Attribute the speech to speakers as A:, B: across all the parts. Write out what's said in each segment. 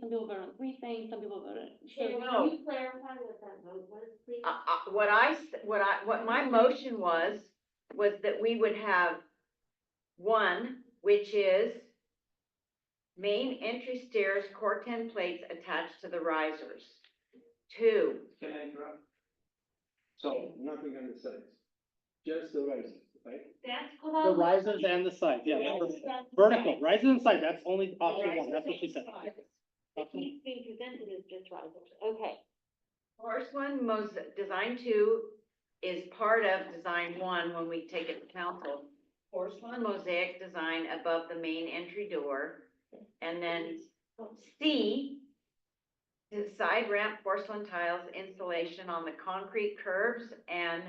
A: some people voted on three things, some people voted. so
B: Shannon,
A: no.
B: can you clarify what that vote was, please?
C: Uh,
D: I- I- what I, s- what I, what my motion was, was that we would have one, which is main entry stairs, core ten plates attached to the risers. Two,
E: Can I interrupt? So, nothing on the sides, just the risers, right?
B: That's
F: The
B: called.
F: risers and the sides, yeah,
B: Yes,
F: that's-
B: that's
F: vertical,
B: right.
F: risers and sides, that's only option
B: Risers
F: one, that's what she
B: and
F: said.
B: sides. What needs being presented is just risers, okay.
D: first one, most, design two is part of design one when we take it to council. Porcelain mosaic design above the main entry door, and then C, the side ramp porcelain tiles installation on the concrete curbs and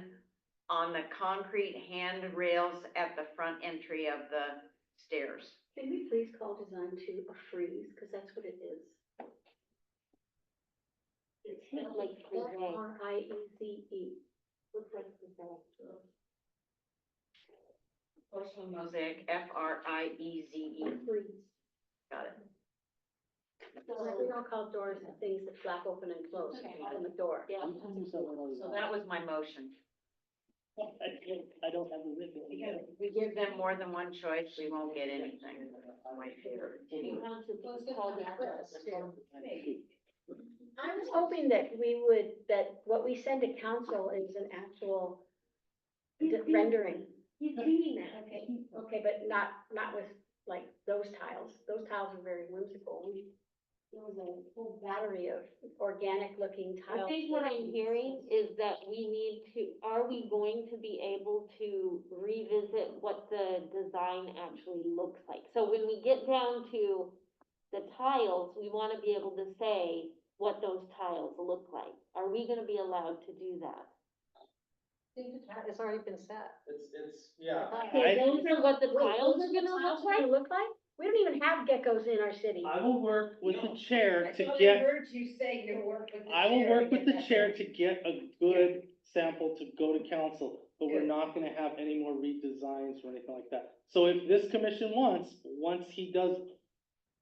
D: on the concrete handrails at the front entry of the stairs.
B: Can we please call design two a freeze, because that's what it is. It's spelled like
A: Like
B: F R I E Z E. Looks like preserve.
D: Porcelain mosaic, F R I E Z E,
B: Freeze.
D: got it.
B: So like we all call doors the things that flap open and close
A: Okay.
B: on the door.
A: Yeah.
F: I'm telling you something I was-
D: So that was my motion.
F: I can't- "Oh, I don't have a written.
D: If we give them more than one choice, we won't get anything.
B: You have to
A: Those
B: just call that doors.
G: I was hoping that we would, that what we send to council is an actual
B: He's
G: d-
B: reading-
G: rendering.
B: He's reading that, okay.
G: Okay, but not, not with like those tiles. Those tiles are very whimsical. We- There was a whole battery of organic looking
B: I
G: tiles.
B: think what I'm hearing is that we need to, are we going to be able to revisit what the design actually looks like? So when we get down to the tiles, we wanna be able to say what those tiles look like. Are we gonna be allowed to do that?
G: It's already been set.
H: It's, it's, yeah.
B: Okay, those are what the tiles are gonna look like?
G: Look like? We don't even have geckos in our city.
F: I will work with the chair to get,
C: heard you say you work with the
F: I will work
C: to
F: with
C: get
F: the
C: that
F: chair
C: done.
F: to get a good sample to go to council, but we're
C: Good.
F: not gonna have any more redesigns or anything like that. So if this commission wants, once he does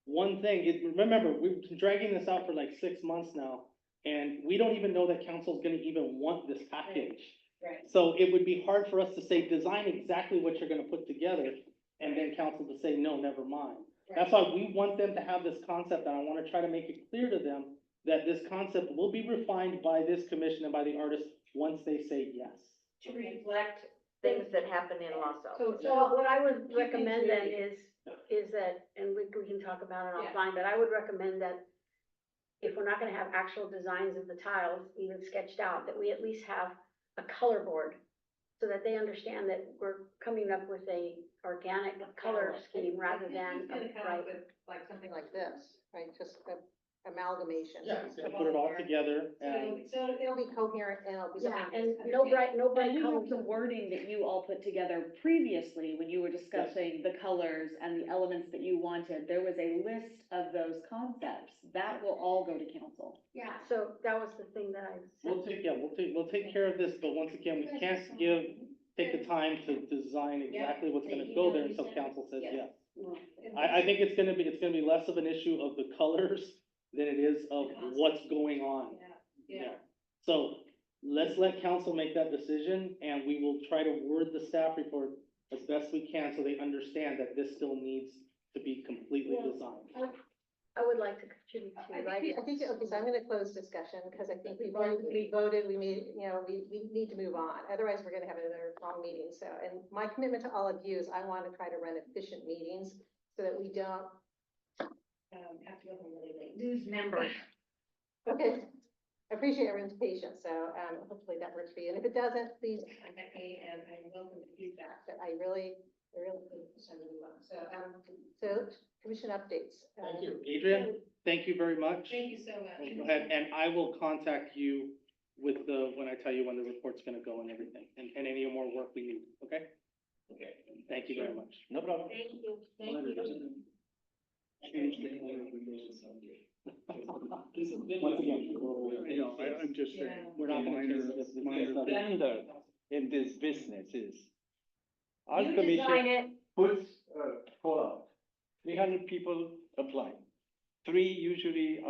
F: one thing, it- remember, we've been dragging this out for like six months now, and we don't even know that council's gonna even want this package.
C: Right.
F: So it would be hard for us to say, design exactly what you're gonna put together, and then council to say, no, never mind. That's why we want them to have this concept, and I wanna try to make it clear to them that this concept will be refined by this commission and by the artist once they say yes.
C: To reflect.
D: Things that happen in Los Altos.
G: So, so what I would
C: Keep
G: recommend then
C: interior.
G: is, is that, and we, we can talk about it
C: Yeah.
G: offline, but I would recommend that if we're not gonna have actual designs of the tiles even sketched out, that we at least have a color board so that they understand that we're coming up with a organic color scheme rather than a bright.
C: Like something like this, right, just amalgamation.
H: Yeah. it's
F: And
H: gonna-
F: put it all together and.
C: So it'll be coherent and it'll be.
G: Yeah, and no bright, no
I: But
G: bright
I: we
G: colors.
I: have the wording that you all put together previously when you were discussing the colors and the elements that you wanted. There was a list of those concepts. That will all go to council.
C: Yeah.
G: So that was the thing that I
F: We'll
G: said.
F: take, yeah, we'll take, we'll take care of this, but once again, we can't give, take the time to design exactly what's gonna go there until council says yes. I, I think it's gonna be, it's gonna be less of an issue of the colors than it is of what's going on.
C: Yeah.
F: So let's let council make that decision and we will try to word the staff report as best we can so they understand that this still needs to be completely
G: Yeah.
F: designed.
G: I would like to contribute to writing.
C: I think, okay, so I'm gonna close discussion, because I think we've already, we voted, we made, you know, we, we need to move on. Otherwise, we're gonna have another long meeting, so, and my commitment to all of you is I want to try to run efficient meetings so that we don't. Um, have to go home really late.
D: Lose members.
C: Okay, I appreciate everyone's patience, so, um, hopefully that works for you, and if it doesn't, please contact me, and I welcome the feedback, but I really, I really think it's time to move on, so, um, so, commission updates. um,
H: Thank you.
F: Adrian, thank you very much.
C: you so much.
F: Go ahead, and I will contact you with the, when I tell you when the report's gonna go and everything, and, and any more work we need, okay?
E: Okay.
F: Thank you very much.
E: No problem.
B: Thank you.
E: Once again, you know, I, I'm just
C: Yeah.
E: saying, we're not gonna
F: Minor-
E: change this.
F: minor
E: The standard in this business is. Our
D: You design
E: commission
D: it,
E: puts, uh, call out, three hundred people apply. Three usually